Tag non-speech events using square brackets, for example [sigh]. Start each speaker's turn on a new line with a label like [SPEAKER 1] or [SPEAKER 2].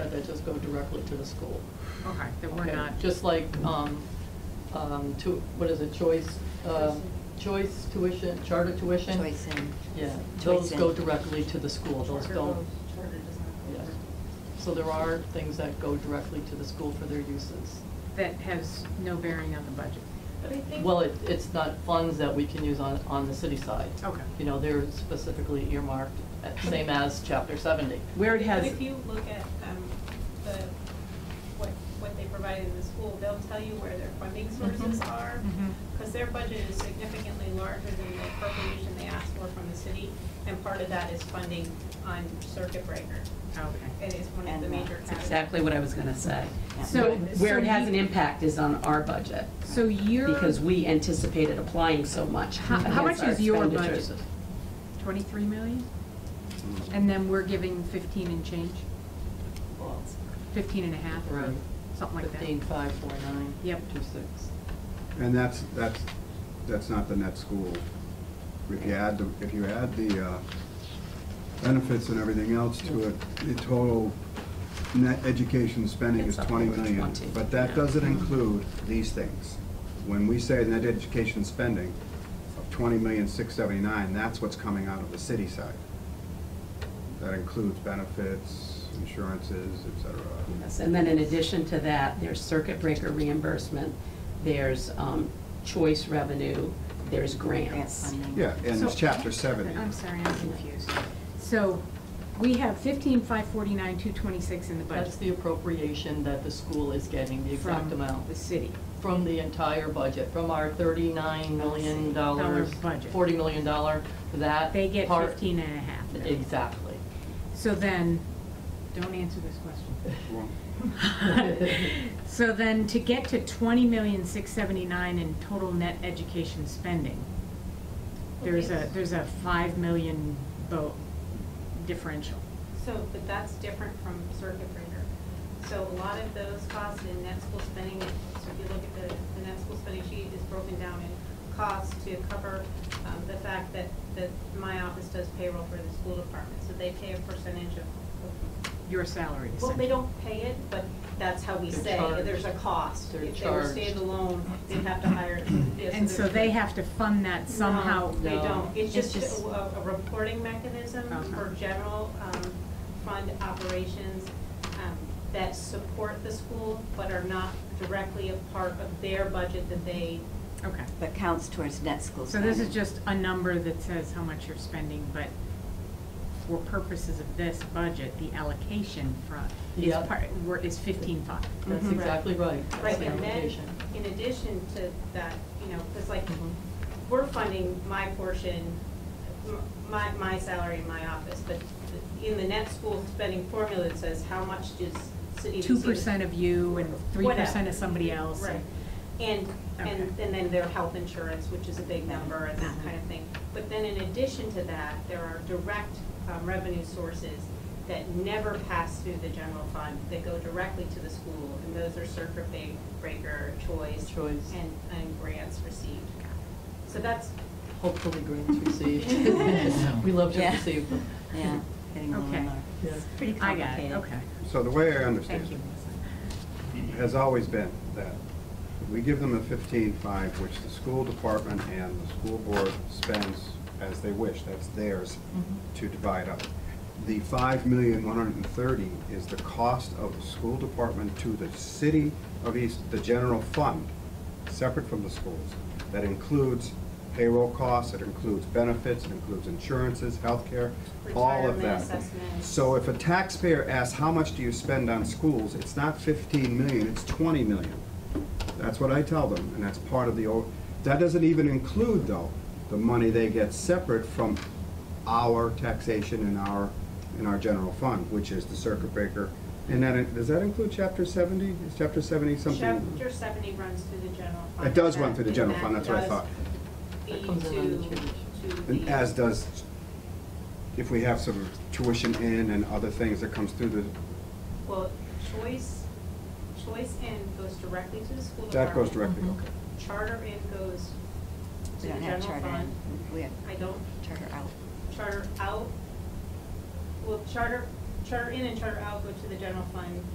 [SPEAKER 1] go directly to the school.
[SPEAKER 2] Okay, that we're
[SPEAKER 1] Okay,
[SPEAKER 2] not,
[SPEAKER 1] Just like, um, um, tu- what is it, choice, uh, choice tuition, charter tuition?
[SPEAKER 3] Choice in.
[SPEAKER 1] Yeah,
[SPEAKER 3] Choice
[SPEAKER 1] those go
[SPEAKER 3] in.
[SPEAKER 1] directly to the school, those don't,
[SPEAKER 4] Charter does not
[SPEAKER 1] yes.
[SPEAKER 4] cover.
[SPEAKER 1] So there are things that go directly to the school for their uses.
[SPEAKER 2] that has no bearing on the budget.
[SPEAKER 4] But I think.
[SPEAKER 1] Well, it, it's not funds that we can use on, on the city side.
[SPEAKER 2] Okay.
[SPEAKER 1] You know, they're specifically earmarked, uh, same as chapter seventy.
[SPEAKER 2] Where it has,
[SPEAKER 4] But if you look at um, the, what, what they provide in the school, they'll tell you where their funding
[SPEAKER 3] Mm-hmm.
[SPEAKER 4] sources are.
[SPEAKER 2] Mhm.
[SPEAKER 4] Because their budget is significantly larger than the appropriation they asked for from the city. And part of that is funding on circuit breaker.
[SPEAKER 2] okay.
[SPEAKER 4] It is one of
[SPEAKER 3] And
[SPEAKER 4] the major
[SPEAKER 3] that's
[SPEAKER 4] categories.
[SPEAKER 5] That's exactly what I was going to say.
[SPEAKER 2] So-
[SPEAKER 5] Where it
[SPEAKER 2] so
[SPEAKER 5] has an
[SPEAKER 2] you-
[SPEAKER 5] impact is on our budget,
[SPEAKER 2] So your,
[SPEAKER 5] because we anticipated applying so much.
[SPEAKER 2] how how much
[SPEAKER 5] against our
[SPEAKER 2] is your
[SPEAKER 5] expenditures.
[SPEAKER 2] budget? Twenty-three million?
[SPEAKER 6] Mm.
[SPEAKER 2] And then we're giving fifteen and change,
[SPEAKER 1] Well,
[SPEAKER 2] fifteen and a half, or
[SPEAKER 1] Right.
[SPEAKER 2] something like that?
[SPEAKER 1] Fifteen, five, four, nine.
[SPEAKER 2] Yep.
[SPEAKER 1] Two, six.
[SPEAKER 6] And that's, that's, that's not the net school. If you add, the- if you add the uh, benefits and everything else to it, the total net education spending is
[SPEAKER 5] It's up
[SPEAKER 6] twenty
[SPEAKER 5] over
[SPEAKER 6] million.
[SPEAKER 5] 20,
[SPEAKER 6] But that
[SPEAKER 5] yeah. Mm-hmm.
[SPEAKER 6] doesn't include these things. When we say net education spending of twenty million, six seventy-nine, that's what's coming out of the city side. That includes benefits, insurances, et cetera.
[SPEAKER 5] Yes, and then in addition to that, there's circuit breaker reimbursement, there's um, choice revenue, there's
[SPEAKER 3] Grant
[SPEAKER 5] grants.
[SPEAKER 3] funding.
[SPEAKER 6] Yeah, and it's
[SPEAKER 2] So-
[SPEAKER 6] chapter seventy.
[SPEAKER 2] I'm sorry, I'm confused. So we have fifteen, five forty-nine, two twenty-six in the budget.
[SPEAKER 1] That's the appropriation that the school is getting, the exact
[SPEAKER 2] From
[SPEAKER 1] amount,
[SPEAKER 2] the city.
[SPEAKER 1] from the entire budget, from our thirty-nine million
[SPEAKER 2] Dollar
[SPEAKER 1] dollars.
[SPEAKER 2] budget.
[SPEAKER 1] Forty million dollar, that.
[SPEAKER 2] They get
[SPEAKER 1] part-
[SPEAKER 2] fifteen and a half. million.
[SPEAKER 1] Exactly.
[SPEAKER 2] So then, don't answer this question.
[SPEAKER 6] Well,
[SPEAKER 2] [laughs] So then, to get to twenty million, six seventy-nine in total net education spending, there's a, there's a five million vote differential.
[SPEAKER 4] So, but that's different from circuit breaker. So a lot of those costs in net school spending, so if you look at the, the net school spending sheet is broken down in costs to cover um, the fact that, that my office does payroll for the school department, so they pay a percentage of,
[SPEAKER 2] Your salary essentially.
[SPEAKER 4] well, they don't pay it, but that's how we
[SPEAKER 1] They're
[SPEAKER 4] say,
[SPEAKER 1] charged.
[SPEAKER 4] there's a cost.
[SPEAKER 1] They're
[SPEAKER 4] If
[SPEAKER 1] charged.
[SPEAKER 4] they were standalone, they'd have to hire. yeah,
[SPEAKER 2] And so
[SPEAKER 4] there's-
[SPEAKER 2] they have to fund that somehow.
[SPEAKER 4] no, They
[SPEAKER 1] No.
[SPEAKER 4] don't, it's
[SPEAKER 2] It's
[SPEAKER 4] just
[SPEAKER 2] just-
[SPEAKER 4] a, a reporting mechanism
[SPEAKER 2] Okay.
[SPEAKER 4] for general, um, fund operations, um, that support the school, but are not directly a part of their budget that they,
[SPEAKER 2] Okay.
[SPEAKER 3] But counts towards net school
[SPEAKER 2] So
[SPEAKER 3] spending.
[SPEAKER 2] this is just a number that says how much you're spending, but for purposes of this budget, the allocation front is
[SPEAKER 1] Yeah.
[SPEAKER 2] part, we're- is fifteen-five.
[SPEAKER 1] That's
[SPEAKER 4] Mhm.
[SPEAKER 1] exactly right. That's
[SPEAKER 4] right,
[SPEAKER 1] the
[SPEAKER 4] and then,
[SPEAKER 1] application.
[SPEAKER 4] in addition to that, you know, because like,
[SPEAKER 1] Mhm.
[SPEAKER 4] we're funding my portion, m- my, my salary in my office, but in the net school spending formula, it says how much does city receive?
[SPEAKER 2] Two percent of you and three percent of somebody else.
[SPEAKER 4] Right. And, and,
[SPEAKER 2] Okay. Mm-hmm.
[SPEAKER 4] and then their health insurance, which is a big number and that kind of thing. But then in addition to that, there are direct um, revenue sources that never pass through the general fund, that go directly to the school. And those are circuit ba- breaker, choice.
[SPEAKER 1] Choice.
[SPEAKER 4] And, and grants received. So that's,
[SPEAKER 1] Hopefully grants received. We love to
[SPEAKER 3] Yeah.
[SPEAKER 1] receive them.
[SPEAKER 3] Yeah, getting more
[SPEAKER 2] Okay.
[SPEAKER 3] and more.
[SPEAKER 1] Yeah.
[SPEAKER 3] It's pretty
[SPEAKER 2] I got
[SPEAKER 3] complicated.
[SPEAKER 2] it, okay.
[SPEAKER 6] So the way I understand
[SPEAKER 2] Thank you,
[SPEAKER 6] it,
[SPEAKER 2] Melissa.
[SPEAKER 6] has always been that we give them a fifteen-five, which the school department and the school board spends as they wish, that's theirs to divide up. The five million, one hundred and thirty is the cost of the school department to the city of East, the general fund, separate from the schools. That includes payroll costs, it includes benefits, it includes insurances, healthcare, all of
[SPEAKER 4] Retirement
[SPEAKER 6] that.
[SPEAKER 4] assessments.
[SPEAKER 6] So if a taxpayer asks, how much do you spend on schools, it's not fifteen million, it's twenty million. That's what I tell them, and that's part of the, o- that doesn't even include, though, the money they get separate from our taxation and our, in our general fund, which is the circuit breaker. And that, does that include chapter seventy? Is chapter seventy something?
[SPEAKER 4] chapter seventy runs through the general fund.
[SPEAKER 6] It does
[SPEAKER 4] and
[SPEAKER 6] run
[SPEAKER 4] that-
[SPEAKER 6] through the
[SPEAKER 4] and
[SPEAKER 6] general
[SPEAKER 4] that
[SPEAKER 6] fund, that's what I
[SPEAKER 4] does
[SPEAKER 6] thought.
[SPEAKER 4] feed
[SPEAKER 1] That comes in on the
[SPEAKER 4] to- to
[SPEAKER 6] And
[SPEAKER 4] the-
[SPEAKER 6] as does, if we have some tuition in and other things that comes through the,
[SPEAKER 4] Well, choice, choice in goes directly to the school
[SPEAKER 6] that goes
[SPEAKER 4] department.
[SPEAKER 6] directly, okay.
[SPEAKER 4] Charter in goes to
[SPEAKER 3] We
[SPEAKER 4] the
[SPEAKER 3] don't have
[SPEAKER 4] general
[SPEAKER 3] charter
[SPEAKER 4] fund.
[SPEAKER 3] in, we have
[SPEAKER 4] I don't,
[SPEAKER 3] charter out.
[SPEAKER 4] charter out, well, charter, charter in and charter out go to the general fund.